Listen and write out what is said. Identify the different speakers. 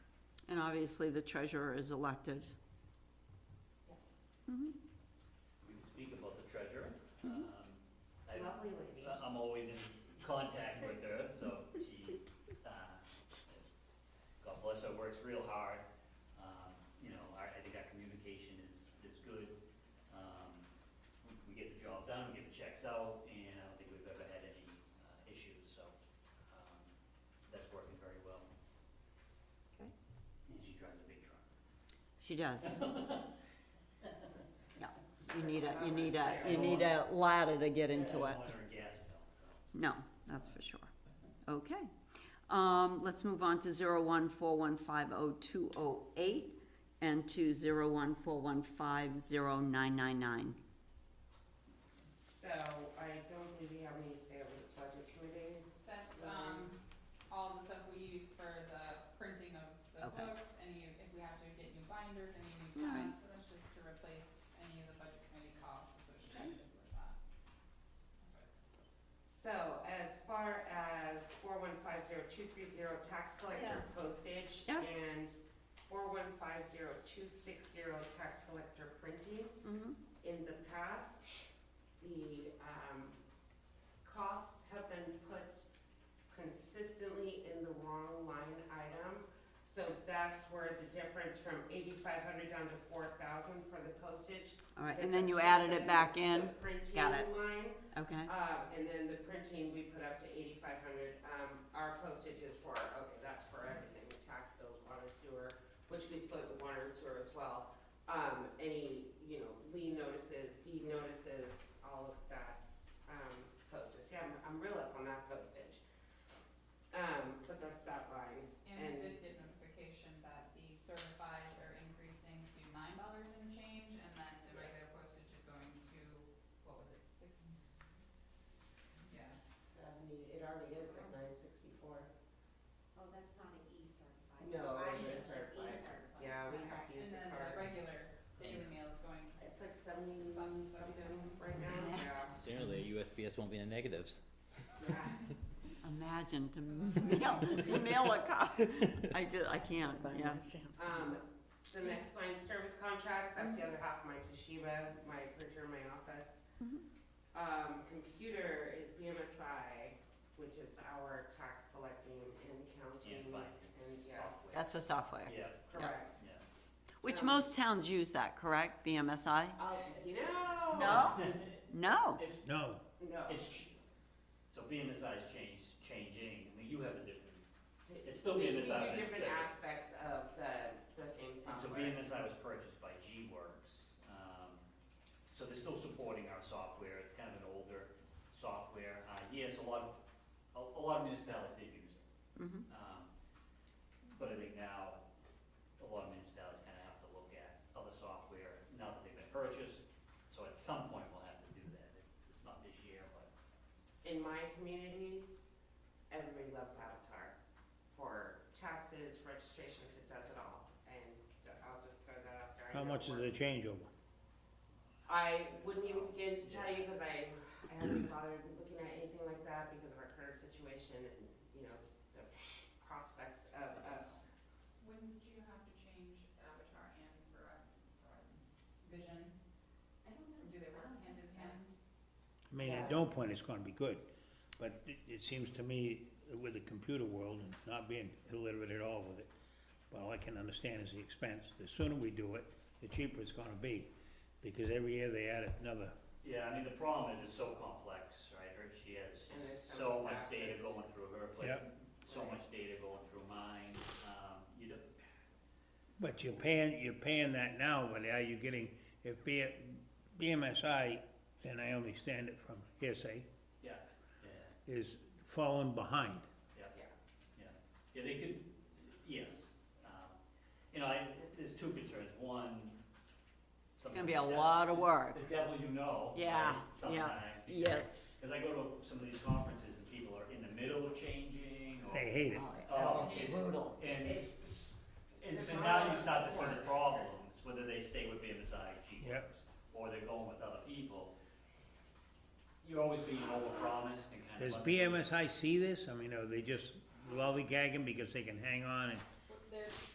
Speaker 1: And obviously, the treasurer is elected.
Speaker 2: Yes.
Speaker 3: We can speak about the treasurer.
Speaker 1: Mm-hmm.
Speaker 3: Um, I-
Speaker 2: Lovely lady.
Speaker 3: I- I'm always in contact with her, so she, uh, God bless her, works real hard. Um, You know, our- I think our communication is, is good. Um, we- We get the job done, we get the checks out, and I don't think we've ever had any uh, issues, so um, that's working very well.
Speaker 1: Okay.
Speaker 3: And she drives a big truck.
Speaker 1: She does. Yeah, you need a, you need a, you need a ladder to get into it.
Speaker 3: I don't want her gas bill, so.
Speaker 1: No, that's for sure. Okay. Um, let's move on to zero one four one five oh two oh eight and to zero one four one five zero nine nine nine.
Speaker 2: So I don't believe we have any say over the budget committee.
Speaker 4: That's, um, all the stuff we use for the printing of the
Speaker 1: Okay.
Speaker 4: books, any, if we have to get new binders, any new
Speaker 1: Alright.
Speaker 4: tabs, so that's just to replace any of the budget committee costs associated with that.
Speaker 2: So as far as four one five zero two three zero tax collector postage
Speaker 1: Yeah.
Speaker 2: and four one five zero two six zero tax collector printing,
Speaker 1: Mm-hmm.
Speaker 2: in the past, the, um, costs have been put consistently in the wrong line item. So that's where the difference from eighty-five hundred down to four thousand for the postage.
Speaker 1: All right,
Speaker 2: is
Speaker 1: and then you added
Speaker 2: actually put
Speaker 1: it back in,
Speaker 2: the Printing
Speaker 1: Got it.
Speaker 2: line,
Speaker 1: okay?
Speaker 2: um, and then the printing, we put up to eighty-five hundred, um, our postage is for, okay, that's for everything, the tax bills, water, sewer, which we split with water and sewer as well. Um, any, you know, lien notices, deed notices, all of that, um, postage, yeah, I'm, I'm real up on that postage. Um, but that's that line,
Speaker 4: And we
Speaker 2: And-
Speaker 4: did get notification that the certifies are increasing to nine dollars and change, and then the regular postage is going to, what was it, six? Yeah.
Speaker 2: seventy, it already is at nine sixty-four.
Speaker 5: Oh, that's not an E-certified.
Speaker 2: No,
Speaker 5: I E
Speaker 2: it's
Speaker 5: have
Speaker 2: certified.
Speaker 5: E-certified.
Speaker 2: Yeah, we have to use
Speaker 4: And
Speaker 2: the
Speaker 4: then the
Speaker 2: cards.
Speaker 4: regular daily mail is going to
Speaker 2: It's like seventy
Speaker 4: Some-
Speaker 2: something
Speaker 4: something.
Speaker 2: right now, yeah,
Speaker 6: Sooner or later, USPS won't be in the negatives.
Speaker 2: yeah.
Speaker 1: Imagine to mail, to mail a copy. I just, I can't, yeah.
Speaker 2: Um, the next line, service contracts, that's the other half of my Toshiba, my printer in my office.
Speaker 1: Mhm.
Speaker 2: Um, computer is BMSI, which is our tax collecting and counting.
Speaker 3: And finance.
Speaker 2: And, Mm-hmm. yeah,
Speaker 3: Software.
Speaker 1: That's the software,
Speaker 3: Yeah,
Speaker 2: correct.
Speaker 3: yeah.
Speaker 1: which most towns use that, correct, BMSI?
Speaker 2: Uh, you know.
Speaker 1: No? No,
Speaker 3: It's,
Speaker 7: No,
Speaker 2: No.
Speaker 3: it's, ch- so BMSI is change, changing, I mean, you have a different, it's still
Speaker 2: We-
Speaker 3: BMSI,
Speaker 2: We do different
Speaker 3: it's-
Speaker 2: aspects of the, the same
Speaker 3: so
Speaker 2: software.
Speaker 3: BMSI was purchased by G-Works. um, So they're still supporting our software, it's kind of an older software. Uh, yes, a lot, of- a, a lot of municipalities did use it.
Speaker 1: Mhm.
Speaker 3: Um, But I think now, a lot of municipalities kind of have to look at other software now that they've been purchased. So at some point, we'll have to do that. It's, it's not this year, but
Speaker 2: In my community, everybody loves Avatar for taxes, registrations, it does it all. And I'll just throw that out there. I
Speaker 7: how
Speaker 2: know
Speaker 7: much
Speaker 2: it
Speaker 7: is
Speaker 2: works.
Speaker 7: the changeover?
Speaker 2: I wouldn't even begin to tell you because I, I haven't bothered looking at anything like that because of our current situation and, you know, the prospects of us.
Speaker 4: Wouldn't you have to change Avatar and Verizon, Verizon Vision?
Speaker 5: I don't
Speaker 4: Or
Speaker 5: know.
Speaker 4: do they work hand in hand?
Speaker 7: I mean, at no point it's gonna be good, but it, it seems to me with the computer world and not being illiterate at all with it, but all I can understand is the expense. The sooner we do it, the cheaper it's gonna be, because every year they add another.
Speaker 3: Yeah, I mean, the problem is it's so complex, right, her, she has
Speaker 2: And there's so
Speaker 3: so
Speaker 2: many
Speaker 3: much data
Speaker 2: facets.
Speaker 3: going through her, but
Speaker 7: Yep.
Speaker 3: so much data going through mine, um, you don't,
Speaker 7: But you're paying, you're paying that now, but now you're getting, if B, BMSI, and I only stand it from hearsay,
Speaker 3: yeah, yeah,
Speaker 7: is falling behind.
Speaker 3: yeah, yeah. Yeah, they could, yes, um, you know, I, there's two concerns, one.
Speaker 1: it's gonna be a lot of work.
Speaker 3: The devil you know.
Speaker 1: Yeah,
Speaker 3: right,
Speaker 1: yeah.
Speaker 3: Sometimes.
Speaker 1: Yes.
Speaker 3: Cause I go to some of these conferences and people are in the middle of changing or.
Speaker 7: They hate it.
Speaker 3: Oh,
Speaker 4: okay.
Speaker 1: brutal.
Speaker 3: And,
Speaker 2: It's-
Speaker 3: and
Speaker 2: the
Speaker 3: so now you
Speaker 2: problems
Speaker 3: start to see
Speaker 2: work.
Speaker 3: the problems, whether they stay with BMSI, G
Speaker 7: Yep.
Speaker 3: or they're going with other people. You're always being overpromised and kind of.
Speaker 7: Does
Speaker 3: under-
Speaker 7: BMSI see this? I mean, are they just lollygagging because they can hang on and